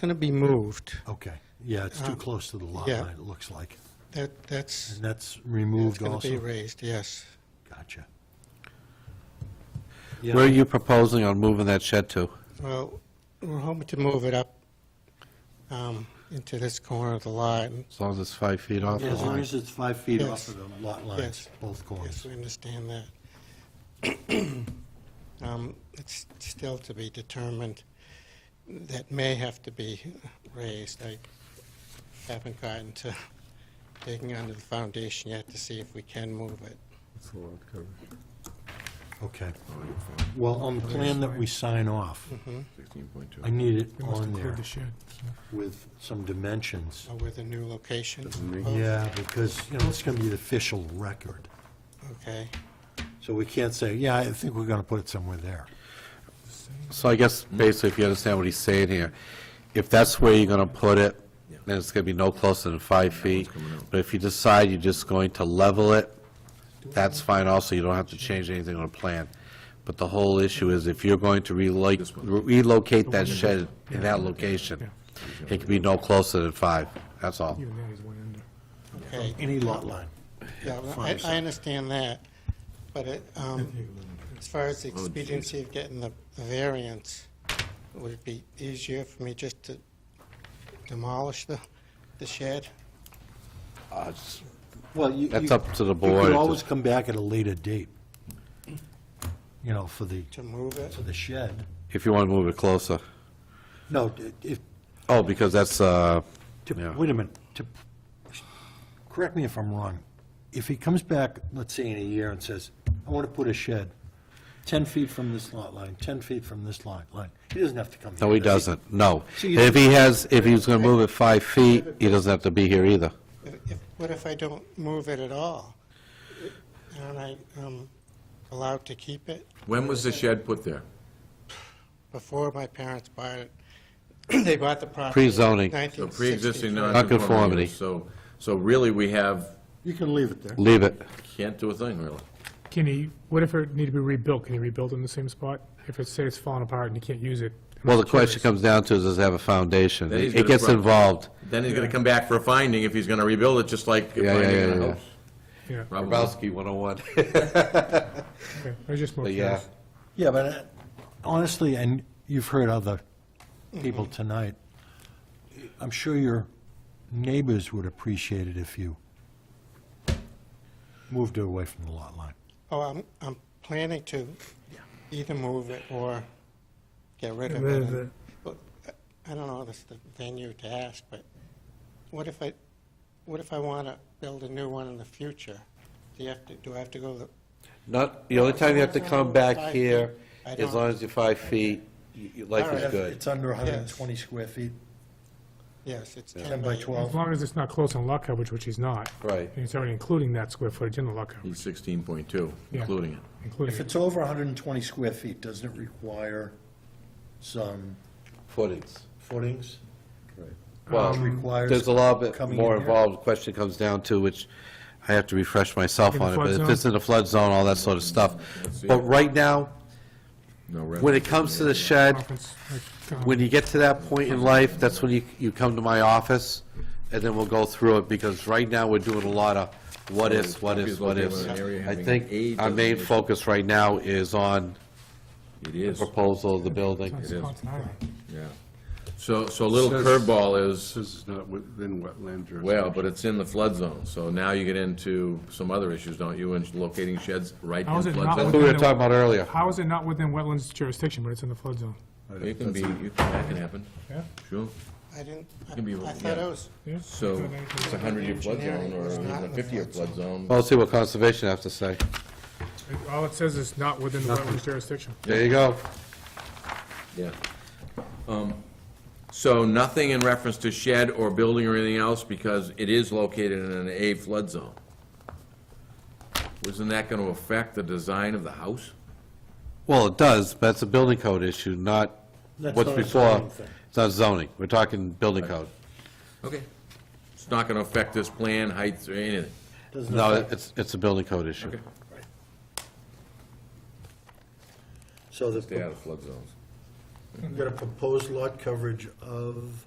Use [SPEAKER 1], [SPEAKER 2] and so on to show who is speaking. [SPEAKER 1] going to be moved.
[SPEAKER 2] Okay, yeah, it's too
[SPEAKER 1] Um,
[SPEAKER 2] close to the lot
[SPEAKER 1] yeah.
[SPEAKER 2] line, it looks like.
[SPEAKER 1] That, that's,
[SPEAKER 2] And that's
[SPEAKER 1] that's
[SPEAKER 2] removed
[SPEAKER 1] going to be
[SPEAKER 2] also?
[SPEAKER 1] raised, yes.
[SPEAKER 2] Gotcha.
[SPEAKER 3] Where are
[SPEAKER 2] Yeah,
[SPEAKER 3] you proposing on moving that shed to?
[SPEAKER 1] Well, we're hoping to move it up um, into this corner of the lot. and
[SPEAKER 3] As long as it's five feet off the
[SPEAKER 2] as long
[SPEAKER 3] line?
[SPEAKER 2] as it's five feet
[SPEAKER 1] Yes.
[SPEAKER 2] off of the lot
[SPEAKER 1] Yes.
[SPEAKER 2] lines, both corners.
[SPEAKER 1] Yes, we understand that. Um, It's still to be determined. That may have to be raised. I haven't gotten to digging under the foundation yet to see if we can move it.
[SPEAKER 2] Okay. Well, on the plan that we sign off,
[SPEAKER 1] Mm-hmm.
[SPEAKER 2] I need it on there with some dimensions.
[SPEAKER 1] Or with a new location?
[SPEAKER 2] Yeah, because, you know, it's going to be the official record.
[SPEAKER 1] Okay.
[SPEAKER 2] So we can't say, yeah, I think we're going to put it somewhere there.
[SPEAKER 3] So I guess basically, if you understand what he's saying here, if that's where you're going to put it, then it's going to be no closer than five feet. But if you decide you're just going to level it, that's fine also, you don't have to change anything on the plan. But the whole issue is if you're going to relocate, relocate that shed in that location, it can be no closer than five, that's all.
[SPEAKER 4] Even that is one under.
[SPEAKER 1] Okay,
[SPEAKER 2] Any lot line.
[SPEAKER 1] yeah, well, I, I understand that, but it, um, as far as
[SPEAKER 5] Oh,
[SPEAKER 1] the expediency of getting the the variance, would it be easier for me just to demolish the, the shed?
[SPEAKER 3] Uh, it's-
[SPEAKER 2] Well, you.
[SPEAKER 3] That's
[SPEAKER 2] you-
[SPEAKER 3] up to
[SPEAKER 2] You
[SPEAKER 3] the board
[SPEAKER 2] could
[SPEAKER 3] to-
[SPEAKER 2] always come back at a later date, you know, for the,
[SPEAKER 1] To move it?
[SPEAKER 2] for the shed.
[SPEAKER 3] If you want to move it closer.
[SPEAKER 2] No, if,
[SPEAKER 3] Oh, because that's, uh,
[SPEAKER 2] to-
[SPEAKER 3] Yeah.
[SPEAKER 2] wait a minute, to, correct me if I'm wrong. If he comes back, let's say in a year, and says, I want to put a shed 10 feet from this lot line, 10 feet from this lot line, he doesn't have to come here.
[SPEAKER 3] no, he
[SPEAKER 2] does
[SPEAKER 3] doesn't, no.
[SPEAKER 2] So you-
[SPEAKER 3] If he has, if he was going to move it five feet, he doesn't have to be here either.
[SPEAKER 1] If- if- What if I don't move it at all? Aren't I, um, allowed to keep it?
[SPEAKER 5] When was the shed put there?
[SPEAKER 1] Before my parents bought it, they bought the property.
[SPEAKER 3] Pre-zoning.
[SPEAKER 5] So
[SPEAKER 1] 1963.
[SPEAKER 5] pre-existing
[SPEAKER 3] Nonconformity.
[SPEAKER 5] nonconformity. So, so really, we have,
[SPEAKER 2] You can leave it there.
[SPEAKER 3] Leave it.
[SPEAKER 5] can't do a thing, really.
[SPEAKER 4] Can he, what if it needed to be rebuilt, can he rebuild it in the same spot? If it's, say it's falling apart and he can't use it? I'm
[SPEAKER 3] Well, the
[SPEAKER 4] just
[SPEAKER 3] question
[SPEAKER 4] curious.
[SPEAKER 3] comes down to is, does it have a foundation?
[SPEAKER 5] Then he's
[SPEAKER 3] It
[SPEAKER 5] gonna
[SPEAKER 3] gets
[SPEAKER 5] pro-
[SPEAKER 3] involved.
[SPEAKER 5] Then he's gonna come back for a finding if he's gonna rebuild it, just like
[SPEAKER 3] Yeah, yeah,
[SPEAKER 5] finding
[SPEAKER 3] yeah,
[SPEAKER 5] a
[SPEAKER 3] yeah.
[SPEAKER 5] house.
[SPEAKER 4] Yeah,
[SPEAKER 5] Probably.
[SPEAKER 3] 101.
[SPEAKER 4] okay, I was just more
[SPEAKER 3] But yeah,
[SPEAKER 4] curious.
[SPEAKER 2] Yeah, but uh, honestly, and you've heard other people
[SPEAKER 6] Mm-hmm.
[SPEAKER 2] tonight, I'm sure your neighbors would appreciate it if you moved it away from the lot line.
[SPEAKER 1] Oh, I'm, I'm planning to either move it or get rid of
[SPEAKER 4] Get rid of
[SPEAKER 1] it.
[SPEAKER 4] it.
[SPEAKER 1] But, uh, I don't know, this is the venue to ask, but what if I, what if I want to build a new one in the future? Do you have to, do I have to go the,
[SPEAKER 3] not, the only time you have to come back here,
[SPEAKER 1] I
[SPEAKER 3] as
[SPEAKER 1] don't-
[SPEAKER 3] long as you're five feet, y- your life
[SPEAKER 1] Alright.
[SPEAKER 3] is good.
[SPEAKER 2] It's under
[SPEAKER 1] 120
[SPEAKER 2] 120 square feet,
[SPEAKER 1] yes, it's
[SPEAKER 2] 10 by 12.
[SPEAKER 4] As long as it's not close on lot coverage, which he's not.
[SPEAKER 3] Right.
[SPEAKER 4] And it's already including that square footage in the lot coverage,
[SPEAKER 5] He's sixteen point two,
[SPEAKER 4] Yeah.
[SPEAKER 5] including Mm. it.
[SPEAKER 4] including
[SPEAKER 6] If
[SPEAKER 4] it.
[SPEAKER 6] it's over 120 square feet, doesn't it require some
[SPEAKER 3] Footings.
[SPEAKER 6] footings?
[SPEAKER 3] Well,
[SPEAKER 6] Which requires
[SPEAKER 3] there's a lot bit
[SPEAKER 6] coming in
[SPEAKER 3] more
[SPEAKER 6] here?
[SPEAKER 3] involved, question comes down to, which I have to refresh myself
[SPEAKER 4] In the
[SPEAKER 3] on it,
[SPEAKER 4] flood
[SPEAKER 3] but if
[SPEAKER 4] zone?
[SPEAKER 3] it's in the flood zone, all that sort of stuff.
[SPEAKER 5] Let's see.
[SPEAKER 3] But right now,
[SPEAKER 5] No
[SPEAKER 3] when
[SPEAKER 5] reference.
[SPEAKER 3] it comes to the shed,
[SPEAKER 4] Conference, like, um,
[SPEAKER 3] when you get to that point in life, that's when you, you come to my office, and then we'll go through it, because right now, we're doing a lot of what ifs, what ifs, what ifs. I think our main focus right now is on
[SPEAKER 5] It is,
[SPEAKER 3] proposal of the building.
[SPEAKER 4] it's
[SPEAKER 5] is.
[SPEAKER 4] not tonight.
[SPEAKER 5] yeah. So, so a little
[SPEAKER 7] Says-
[SPEAKER 5] curveball is,
[SPEAKER 7] This is not within wetland jurisdiction.
[SPEAKER 5] well, but it's in the flood zone, so now you get into some other issues, don't you, in locating sheds right
[SPEAKER 4] How
[SPEAKER 5] in
[SPEAKER 4] is it
[SPEAKER 5] flood
[SPEAKER 4] not
[SPEAKER 3] That's
[SPEAKER 5] zone?
[SPEAKER 3] what we were talking about earlier.
[SPEAKER 4] How is it not within wetlands jurisdiction, but it's in the flood zone?
[SPEAKER 5] It can be, you can- that can happen,
[SPEAKER 4] Yeah?
[SPEAKER 5] sure.
[SPEAKER 1] I didn't, I
[SPEAKER 5] Can be
[SPEAKER 1] I
[SPEAKER 5] removed,
[SPEAKER 1] thought
[SPEAKER 5] yeah.
[SPEAKER 1] I was,
[SPEAKER 4] Yeah?
[SPEAKER 5] So it's a hundred-year flood zone or
[SPEAKER 1] Engineering is not
[SPEAKER 5] a
[SPEAKER 1] in the
[SPEAKER 5] fifty-year
[SPEAKER 1] flood
[SPEAKER 5] flood zone.
[SPEAKER 3] Well, Let's see what conservation has to say.
[SPEAKER 4] It- All it says is not within the wetlands jurisdiction.
[SPEAKER 3] There you go.
[SPEAKER 5] Yeah. Um, So nothing in reference to shed or building or anything else because it is located in an A flood zone. Wasn't that going to affect the design of the house?
[SPEAKER 3] Well, it does, but it's a building code issue, not
[SPEAKER 2] That's
[SPEAKER 3] what's
[SPEAKER 2] not a
[SPEAKER 3] before.
[SPEAKER 2] zoning thing.
[SPEAKER 3] It's not zoning, we're talking building code.
[SPEAKER 5] Okay. It's not going to affect this plan, heights, or anything.
[SPEAKER 2] Doesn't
[SPEAKER 3] No,
[SPEAKER 2] affect-
[SPEAKER 3] it's, it's a building code issue.
[SPEAKER 5] Okay.
[SPEAKER 2] So
[SPEAKER 5] Stay
[SPEAKER 2] the,
[SPEAKER 5] out of flood zones.
[SPEAKER 2] You've got a proposed lot coverage of?